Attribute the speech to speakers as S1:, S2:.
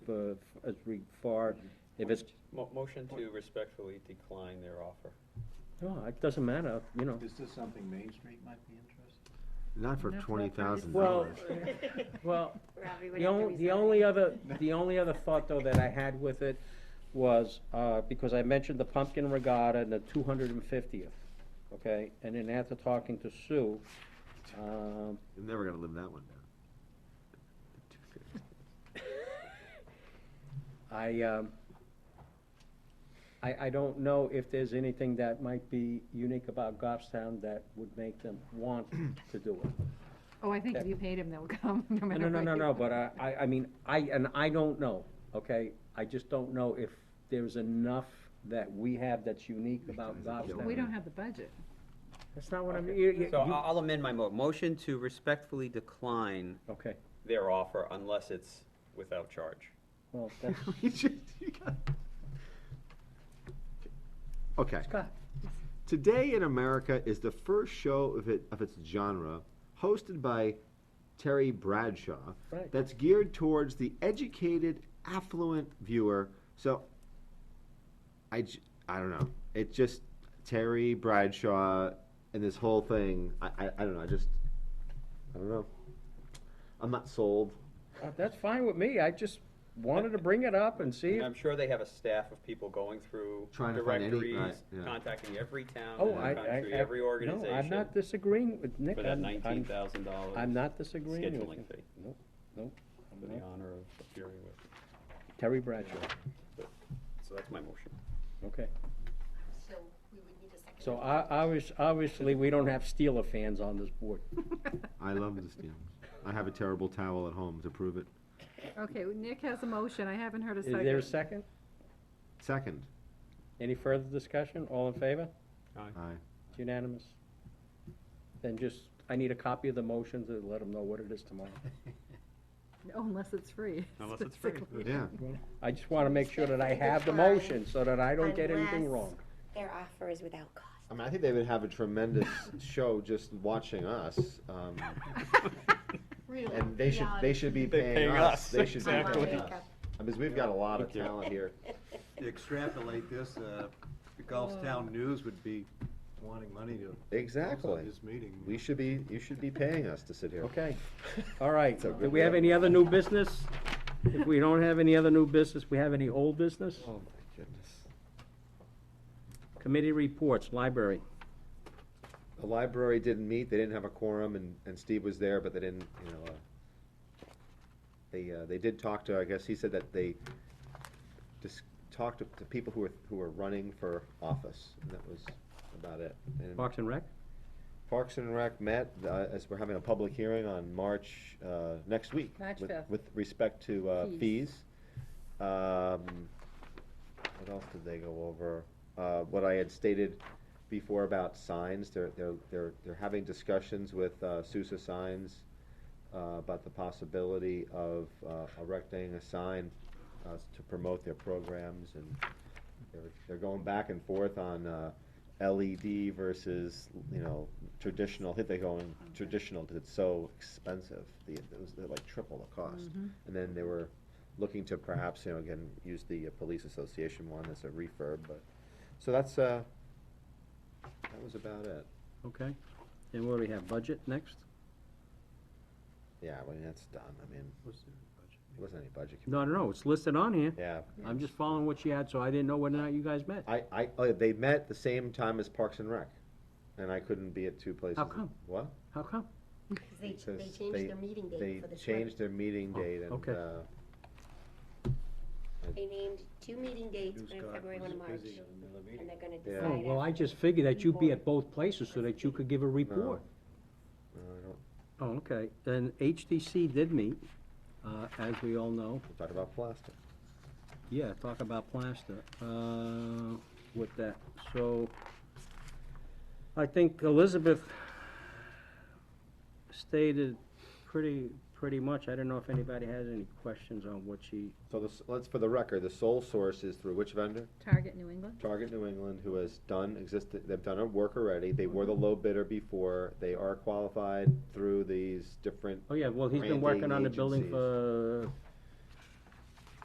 S1: uh, as we far, if it's,
S2: Mo- Motion to respectfully decline their offer.
S1: no, it doesn't matter, you know.
S3: Is this something Main Street might be interested?
S4: Not for
S5: Not for
S4: twenty
S5: that price.
S4: thousand
S1: Well,
S4: dollars.
S1: well,
S5: Robbie would
S1: the
S5: have to
S1: only,
S5: resign.
S1: the only other, the only other thought though that I had with it was, uh, because I mentioned the pumpkin regatta and the two hundred and fiftieth, okay? And then after talking to Sue, um,
S4: You're never gonna live that one down.
S1: I, um, I, I don't know if there's anything that might be unique about Goffstown that would make them want to do it.
S5: Oh, I think if you paid him, they'll come, no matter
S1: No, no,
S5: what
S1: no,
S5: you-
S1: no, but I, I, I mean, I, and I don't know, okay? I just don't know if there's enough that we have that's unique about
S4: guys are killing
S5: We
S1: Goffstown.
S4: it.
S5: don't have the budget.
S1: That's not what I'm,
S2: Okay.
S1: you, you,
S2: So I-
S1: you-
S2: I'll amend my mo, motion to respectfully decline
S1: okay,
S2: their offer unless it's without charge.
S1: well, that's,
S4: You just- you got- Okay,
S1: Scott,
S4: Today in America is the first show of it, of its genre, hosted by Terry Bradshaw,
S1: Right.
S4: that's geared towards the educated, affluent viewer. So, I, j- I don't know. It just Terry Bradshaw and this whole thing. I, I, I don't know. I just, I don't know. I'm not sold.
S1: uh, that's fine with me, I just wanted to bring it up and see,
S2: And
S1: if-
S2: I'm sure they have a staff of people going through
S4: Trying to find any- right,
S2: directories,
S4: yeah.
S2: contacting every town
S1: oh,
S2: in
S1: I, I,
S2: the country, every
S1: I- no, I'm
S2: organization,
S1: not disagreeing with Nick,
S2: for that
S1: I'm,
S2: nineteen
S1: I'm,
S2: thousand dollars.
S1: I'm not disagreeing with you.
S2: Scheduling fee.
S1: Nope, nope, I'm
S2: For the
S1: not.
S2: honor of appearing with,
S1: Terry Bradshaw,
S2: so that's my motion.
S1: okay.
S6: So we would need a second.
S1: So I, I was, obviously, we don't have Steeler fans on this board.
S4: I love the Steelers. I have a terrible towel at home to prove it.
S5: Okay, well, Nick has a motion, I haven't heard a
S1: Is there a
S5: second.
S1: second?
S4: Second,
S1: Any further discussion? All in favor?
S4: I.
S1: It's unanimous. Then just, I need a copy of the motion to let them know what it is tomorrow.
S5: No, Oh, Unless it's free.
S2: Unless it's free.
S5: specifically.
S4: Yeah.
S1: I just want to make sure that I have the motion so that I don't get anything wrong.
S6: Their offer is without cost.
S4: I mean, I think they would have a tremendous show just watching us. Um,
S6: Really?
S4: and they should they should be
S2: They're
S4: paying,
S2: paying
S4: us.
S2: us,
S4: They should
S6: exactly.
S4: be paying us. I mean, we've got a lot of talent here.
S6: uh,
S7: to extrapolate this, uh, the Gulfstown News would be wanting money to. close
S4: Exactly.
S7: on This meeting.
S4: We should be you should be paying us to sit here.
S1: Okay, all right.
S4: It's a
S1: Do
S4: good
S1: we have
S4: job.
S1: any other new business? If we don't have any other new business, we have any old business?
S4: Oh my goodness.
S1: Committee reports, library.
S4: The library didn't meet. They didn't have a quorum, and, and Steve was there, but they didn't. You know, uh, they uh, they did talk to. I guess he said that they just talked to, to people who were who were running for office, and that was about it. They didn't-
S1: Parks and Rec?
S4: Parks and Rec met, uh, as we're having a public hearing on March, uh, next week.
S5: March
S4: with-
S5: fifth.
S4: With respect to, uh, fees. Um, what else did they go over? Uh, what I had stated before about signs, they're, they're, they're, they're having discussions with, uh, Sousa Signs, uh, about the possibility of, uh, erecting a sign, uh, to promote their programs and they're, they're going back and forth on, uh, LED versus, you know, traditional, I think they're going traditional, because it's so expensive, the, it was they're like triple the cost. And then they were looking to perhaps, you know, again, use the uh, police association one as a refurb, but, so that's, uh, that was about it.
S1: Okay. And what do we have, budget next?
S4: Yeah, I mean, that's done, I mean,
S7: Was there a budget?
S4: it wasn't any budget,
S1: No, no, no, it's listed on here.
S4: yeah.
S1: I'm just following what she had, so I didn't know whether or not you guys met.
S4: I, I, oh, they met the same time as Parks and Rec, and I couldn't be at two places.
S1: come?
S4: What?
S1: How come?
S6: Because they, they
S4: Because
S6: changed their meeting
S4: they
S6: date for the
S4: changed
S6: twenty.
S4: their meeting
S1: Oh,
S4: date and,
S1: okay.
S4: uh,
S6: They named two meeting dates,
S7: News
S6: one in
S7: guy
S6: February, one
S7: was
S6: in March,
S7: busy on another meeting.
S6: and they're gonna
S4: Yeah.
S6: decide.
S1: Oh, well, I
S6: after.
S1: just figured that you'd be at both places so that you could give a report.
S4: no, I don't,
S1: Oh, okay, and HTC did meet, uh, as we all know,
S4: we'll talk about plastic.
S1: yeah, talk about plaster, uh, with that, so. I think Elizabeth stated pretty, pretty much, I don't know if anybody has any questions on what she,
S4: So this, let's, for the record, the sole source is through which vendor?
S5: Target New England?
S4: Target New England, who has done existed, they've done a work already, they were the low bidder before, they are qualified through these different,
S1: oh yeah, well, he's been working on the building
S4: Granting
S1: for